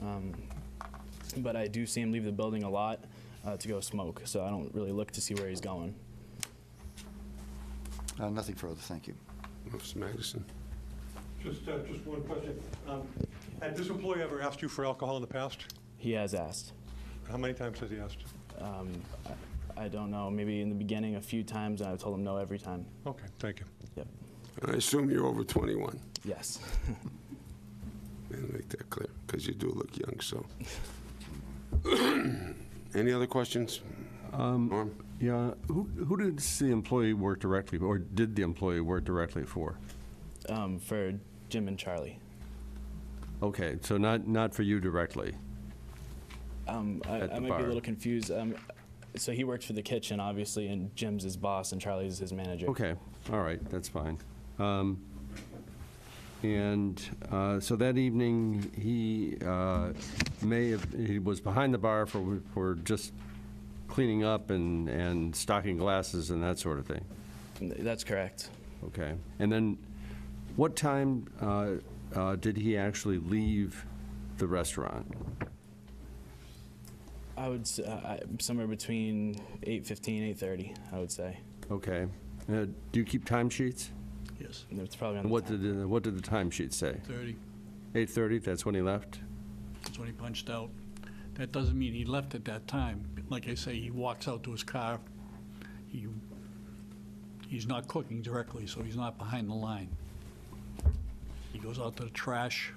Um, but I do see him leave the building a lot uh, to go smoke, so I don't really look to see where he's going. Uh, Nothing further, thank you. Mr. Magnuson. Just, uh, just one question. Um, Had this employee ever asked you for alcohol in the past? He has asked. How many times has he asked? Um, I, I don't know, maybe in the beginning a few times, and I've told him no every time. Okay, thank you. Yep. I assume you're over 21, Yes. and make that clear, because you do look young, so. Any other questions? Norm? Yeah, who, who did the employee work directly, or did the employee work directly for? um, for Jim and Charlie. Okay, so not, not for you directly? Um, I, At I the might be bar. a little confused. Um, so he works for the kitchen, obviously, and Jim's his boss, and Charlie's his manager. Okay, all right, that's fine. Um, And uh, so that evening, he uh, may have, he was behind the bar for, for just cleaning up and, and stocking glasses and that sort of thing? That's correct. Okay. And then, what time uh, uh, did he actually leave the restaurant? I would s- uh, I, somewhere between 8:15, 8:30, I would say. Okay. Uh, Do you keep timesheets? Yes, And It's probably on. And the what time. did, the- what did the timesheet say? 30, 8:30, that's when he left? that's when he punched out. That doesn't mean he left at that time. Like I say, he walks out to his car. He, he's not cooking directly, so he's not behind the line. He goes out to the trash,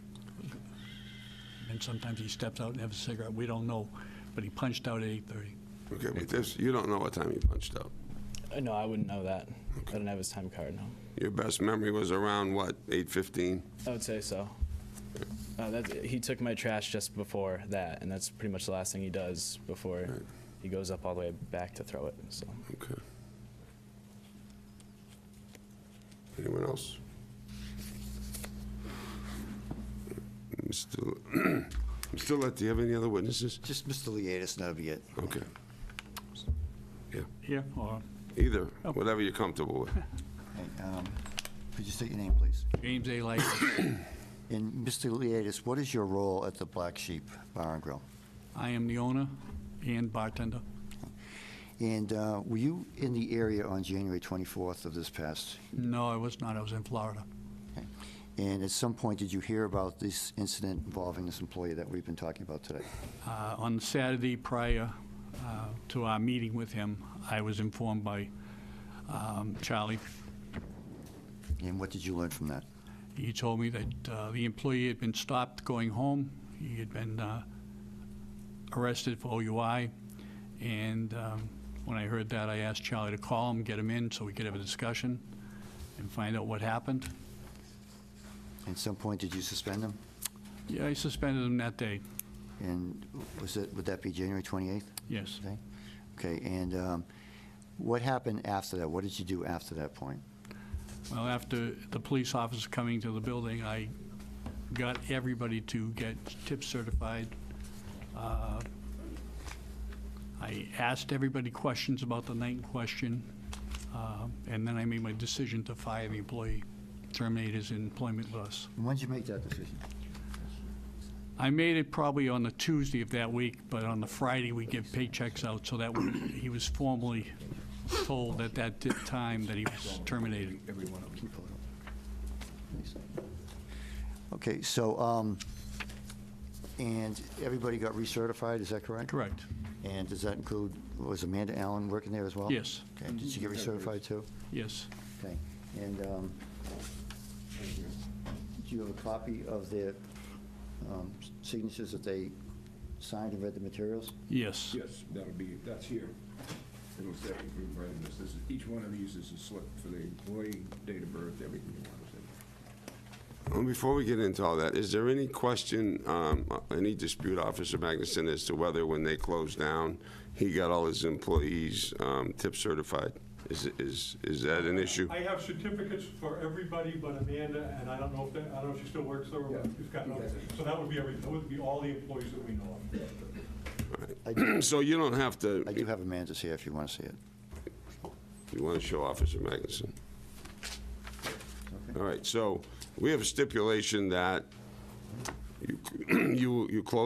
and sometimes he steps out and has a cigarette. We don't know, but he punched out at 8:30. Okay, but this, you don't know what time you punched out. Uh, No, I wouldn't know that. I didn't have his time card. No, Your best memory was around, what, 8:15? I would say so. Uh, that, he took my trash just before that, and that's pretty much the last thing he does before he goes up all the way back to throw it. So. Okay. Anyone else? Mr. Le- Mr. Lett, do you have any other witnesses? Just Mr. Liadis, that'll be it. Okay. Here, or Either, Oh. whatever you're comfortable with. Okay, um, Could you state your name, please? James A. Light, And Mr. Liadis, what is your role at the Black Sheep Bar and Grill? I am the owner and bartender. And uh, were you in the area on January 24th of this past? No, I was not, I was in Florida. okay. And at some point, did you hear about this incident involving this employee that we've been talking about today? Uh, On Saturday prior uh, to our meeting with him, I was informed by um, Charlie. And what did you learn from that? He told me that uh, the employee had been stopped going home. He had been uh, arrested for OUI. And um, when I heard that, I asked Charlie to call him, get him in, so we could have a discussion and find out what happened. At some point, did you suspend him? Yeah, I suspended him that day, And was it, would that be January 28th? yes. Okay, Okay. and um, what happened after that? What did you do after that point? Well, after the police officer coming to the building, I got everybody to get tip certified. Uh, I asked everybody questions about the night in question, uh, and then I made my decision to fire the employee, terminate his employment with us. And when did you make that decision? I made it probably on the Tuesday of that week, but on the Friday, we give paychecks out, so that when he was formally told at that di- time that he was terminated. Every one of them. Okay, so, um, and everybody got recertified, is that correct? Correct, And does that include, was Amanda Allen working there as well? Yes. Okay, did she get recertified too? yes. Okay, and um, do you have a copy of their um, signatures that they signed and read the materials? Yes. Yes, that'll be, that's here. It'll say, we provided this, this is, each one of these is a slip for the employee, date of birth, everything you want to say. Well, before we get into all that, is there any question, um, any dispute, Officer Magnuson, as to whether when they closed down, he got all his employees um, tip certified? Is, is, is that an issue? I have certificates for everybody but Amanda, and I don't know if, that- I don't know if she still works there or Yeah. if she's gotten out. So that would be every, that would be all the employees that we know of. I do- So you don't have to, I do have Amanda's here if you want to see it. you want to show Officer Magnuson? Okay. All right, so we have a stipulation that you, you, you close